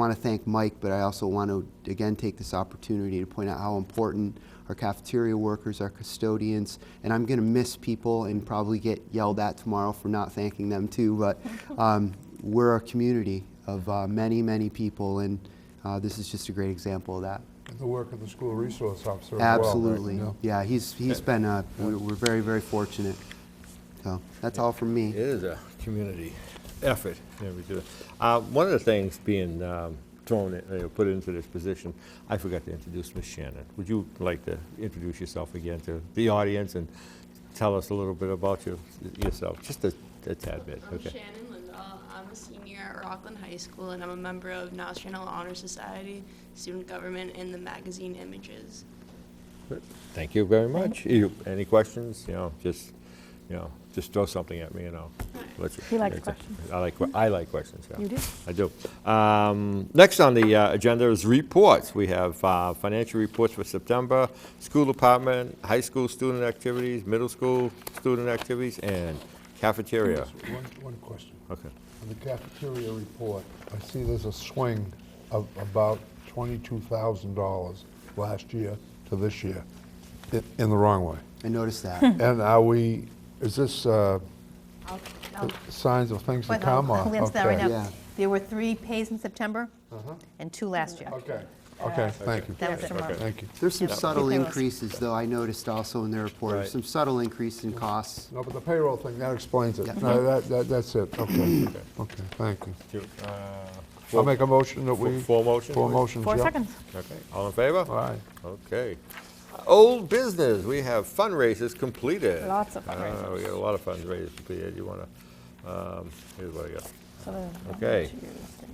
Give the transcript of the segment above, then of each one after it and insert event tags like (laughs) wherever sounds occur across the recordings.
want to thank Mike, but I also want to, again, take this opportunity to point out how important our cafeteria workers, our custodians, and I'm going to miss people and probably get yelled at tomorrow for not thanking them too, but um, we're a community of uh, many, many people, and uh, this is just a great example of that. And The work of the school resource officer as well. right? Absolutely. Yeah. Yeah, he's, he's been, uh, we're we're very, very fortunate. So that's all from me. It is a community effort. Yeah, we do it. Uh, One of the things being um, thrown, in- uh, put into this position, I forgot to introduce Ms. Shannon. Would you like to introduce yourself again to the audience and tell us a little bit about your- yourself? Just a a tad bit, I'm okay? Shannon Lindahl. I'm a senior at Rockland High School, and I'm a member of Niles Channel Honor Society, Student Government, and the magazine Images. Thank you very much. You- Any questions? You know, just, you know, just throw something at me and I'll. let's- He likes let's- questions. I like, que- I like questions, yeah. You do? I do. Um, Next on the uh, agenda is reports. We have uh, financial reports for September, school department, high school student activities, middle school student activities, and cafeteria. Just One, one question. Okay. On the cafeteria report, I see there's a swing of about twenty-two thousand dollars last year to this year, i- in the wrong way. I noticed (laughs) that. And are we, is this uh, I'll- I'll- signs of things to I'll- come? (laughs) or- I'll answer that right okay. Yeah. now. There were three pays in September and two last year. Okay, okay, thank you, That was it. Okay. thank you. There's some Yeah. subtle There was. increases, though, I noticed also in the report, Right. some subtle increase in costs. No, but the payroll thing, that explains it. No, that, that, that's it, okay, okay, thank you. Do- uh, I'll make a motion that we. Full motion? Four motions, Four yeah. seconds. Okay, all in favor? All right. Okay. Old business, we have fundraisers completed. Lots of Ah, fundraisers. We got a lot of fundraisers completed. You want to, here's what I got. So there's one, Okay. two, three, four,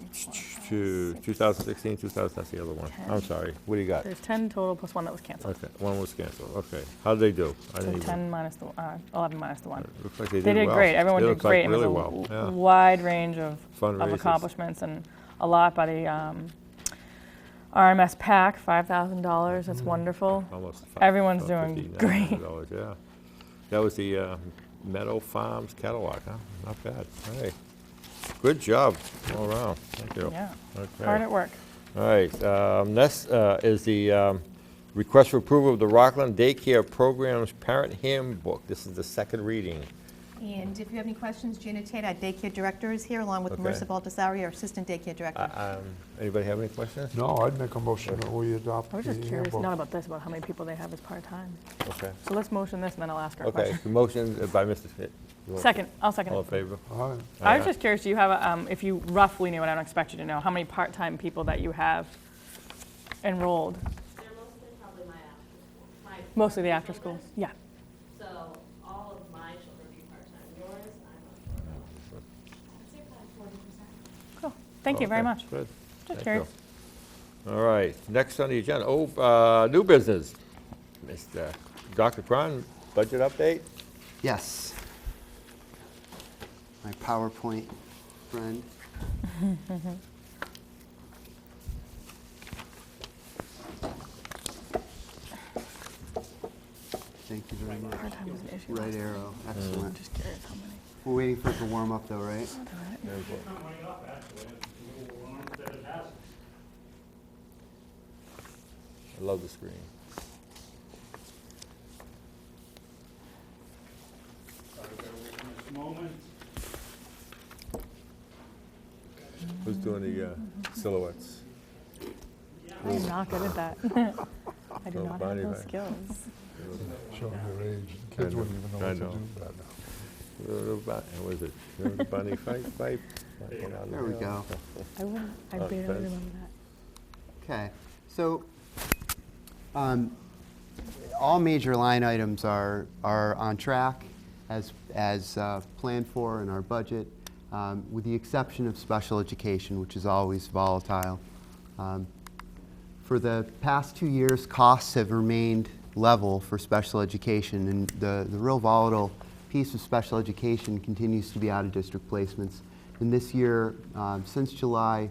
To five, six. 2016, 2000, that's the other one. I'm sorry, what do you got? There's 10 total plus one that was canceled. Okay, one was canceled, okay. How'd they do? I So didn't even- 10 minus the, uh, 11 minus the one. Looks like they did They did well. great. Everyone They did looked like great. and Really it was a well, w- yeah. wide range of, of Fundraisers. accomplishments and a lot by the um, RMS PAC, $5,000. That's wonderful. Mm. Almost. fi- Everyone's about doing $5,900, Yeah. That was the uh, Meadow Farms catalog, huh? Not bad. Hey, good job all around. Thank you. (laughs) Yeah. Hard Okay. at work. All right. um, Next uh, is the um, request for approval of the Rockland Daycare Program's Parent Handbook. This is the second reading. And if you have any questions, Gina Tate, our daycare director, is here, along with Okay. Marissa Baldessari, our assistant daycare director. Uh, um, Anybody have any questions? No, I'd make a motion that we adopt I the was just curious, not handbook. about this, about how many people they have as part-time. Okay. So let's motion this, and then I'll ask her a Okay, question. the motion uh, by Mr. Fit. You want- Second, I'll second All in it. favor? All right. Oh, I was just curious, do you have, a, um, if you roughly knew, and I don't expect you to know, how many part-time people that you have enrolled? They're mostly probably my after school. My Mostly the after-schools? children. Yeah. So all of my children are part-time. Yours, I'm not sure about. I'd say probably forty percent. Cool. Thank you very Okay, much. Good. Just Thank you. curious. All right, next on the agenda, oh, uh, new business. Mr. Dr. Cron, budget update? Yes. My PowerPoint friend. Thank you very much. Part-time was an issue. Mm-hmm. Right arrow, excellent. Just curious how many. We're waiting for it to warm up though, right? I love the screen. Who's doing the uh, silhouettes? I am not good at that. (laughs) I do Oh, not have body those back. skills. Showing your age. Kids know, wouldn't even I know what to know. do by now. Little bu- What is it? Little bunny, fight, fight. walking on the There we hill. go. I wouldn't, I Oh, barely that's- remember that. Okay, so, um, all major line items are, are on track as, as uh, planned for in our budget, um, with the exception of special education, which is always volatile. Um, for the past two years, costs have remained level for special education, and the, the real volatile piece of special education continues to be out-of-district placements. And this year, um, since July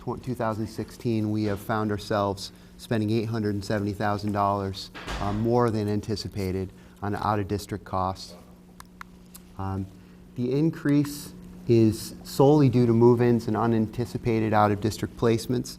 tw- 2016, we have found ourselves spending $870,000 uh, more than anticipated on out-of-district costs. Um, The increase is solely due to move-ins and unanticipated out-of-district placements.